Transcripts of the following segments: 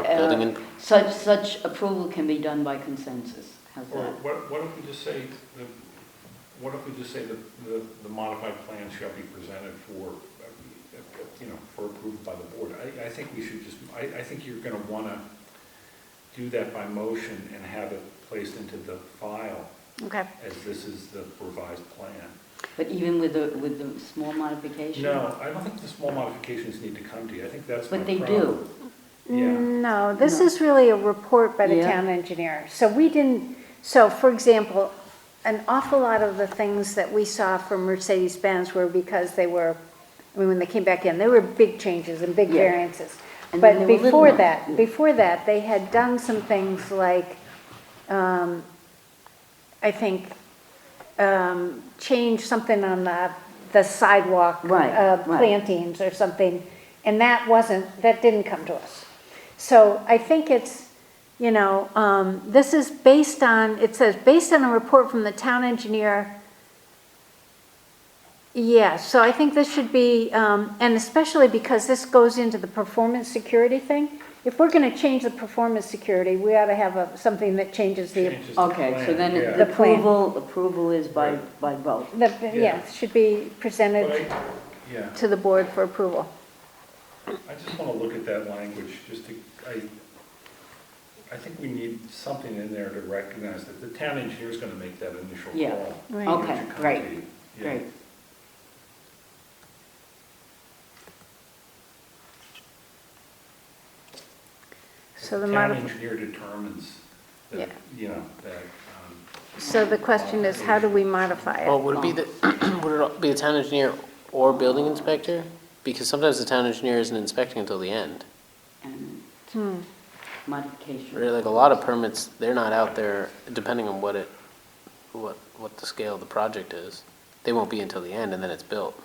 something in, Such, such approval can be done by consensus. How's Or that? what, what if we just say, the, what if we just say that the, the modified plan shall be presented for, uh, you know, for approval by the board? I, I think we should just, I, I think you're gonna wanna do that by motion and have it placed into the file Okay. as this is the revised plan. But even with the, with the small modification? No, I don't think the small modifications need to come to you, I think that's my But they problem. do. Mm. Yeah, No, this No. is really a report by the Yeah. town engineer. So we didn't, so for example, an awful lot of the things that we saw from Mercedes-Benz were because they were, I mean, when they came back in, they were big changes and big Yeah. variances. And then they But were little before ones. that, before that, they had done some things like, um, I think, um, change something on the, the sidewalk. Right, uh, right. Plantings or something, and that wasn't, that didn't come to us. So I think it's, you know, um, this is based on, it says, based on a report from the town engineer. Yeah, so I think this should be, um, and especially because this goes into the performance security thing. If we're gonna change the performance security, we ought to have a, something that changes the, changes the Okay, so plan, then yeah. the The plan. approval, approval is by, by vote. the, yeah, should be But presented I- Yeah. to the board for approval. I just want to look at that language, just to, I, I think we need something in there to recognize that the town engineer's going to make that initial call. Yeah, right. What Okay, you come great, to, yeah. Great. So the Town modification. engineer determines, that, Yeah. you know, that, um, So the question is, how do we modify well, it? would it be the, would it be the town engineer or building inspector? Because sometimes the town engineer isn't inspecting until the end. And Hmm. Really, modification. like a lot of permits, they're not out there, depending on what it, what, what the scale of the project is. They won't be until the end and then it's built.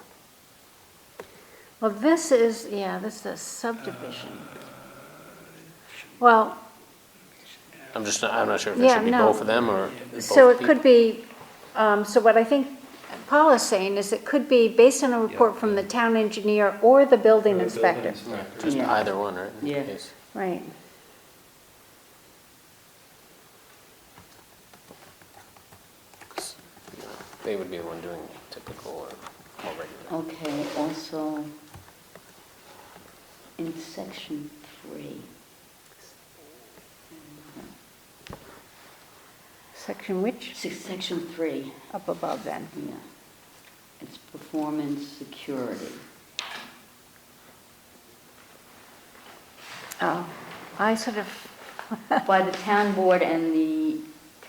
Well, this is, yeah, this is a subdivision. Well, I'm just, not- I'm not sure if it Yeah, should be no. both of them or both so it people. could be, um, so what I think Paul is saying is it could be based on a report from the town engineer or the building the inspector. Yeah, inspector. Just Yeah. either one, right? Yeah. Yes. Right. They would be the one doing typical or or regular. Okay, also, in section three, Section which? sec- section three, Up above then. yeah. It's performance security. Oh, I sort of, by the town board and the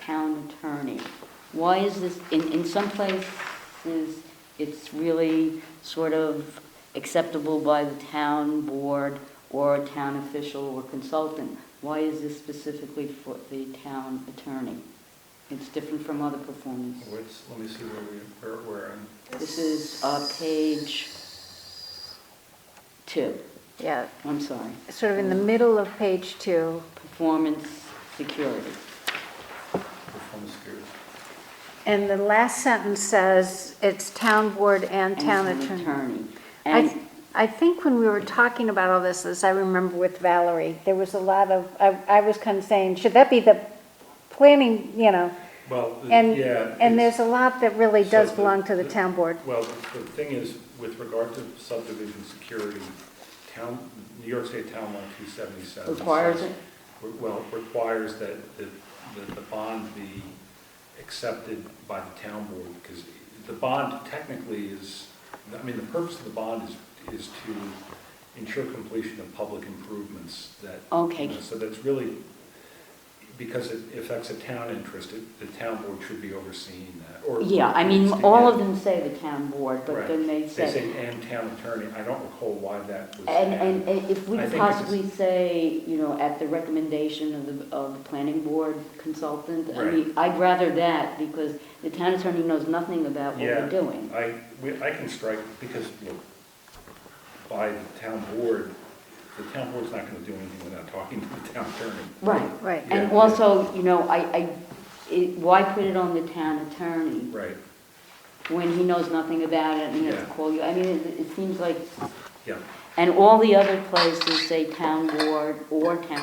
town attorney. Why is this, in, in some places, it's really sort of acceptable by the town board or a town official or consultant. Why is this specifically for the town attorney? It's different from other performance. What's, let me see where we, where, where, I'm- This is, uh, page two, yeah, I'm sorry, sort of in the middle of page two. performance security. performance security. And the last sentence says, it's town board and town attorney. I, And th- I think when we were talking about all this, as I remember with Valerie, there was a lot of, I, I was kind of saying, should that be the planning, you know? Well, the- And, Uh, yeah. and it's- there's a lot that really So does the- belong to the the- town board. Well, the thing is, with regard to subdivision security, town, New York State Town Law 277. Requires says- it? re- Well, requires that, that that the bond be accepted by the town board, because the bond technically is, I mean, the purpose of the bond is, is to ensure completion of public improvements that. you Okay. know, So that's really, because it affects a town interest, it- the town board should be overseeing that, or. Yeah, I mean, it's the- all of them say the town board, but Right. then they say, and town attorney, I don't recall why that was. and, and added. and if we I could think it's- possibly say, you know, at the recommendation of the, of the planning board consultant, I Right. mean, I'd rather that, because the town attorney knows nothing about what Yeah. we're doing. I, we- I can strike, because, look, by the town board, the town board's not gonna do anything without talking to the town attorney. Right, Right. and Yeah. also, you know, I, I, it, why put it on the town attorney Right, when he knows nothing about it and he has to Yeah. call you? I mean, it, it seems like, yeah. and all the other places say town board or town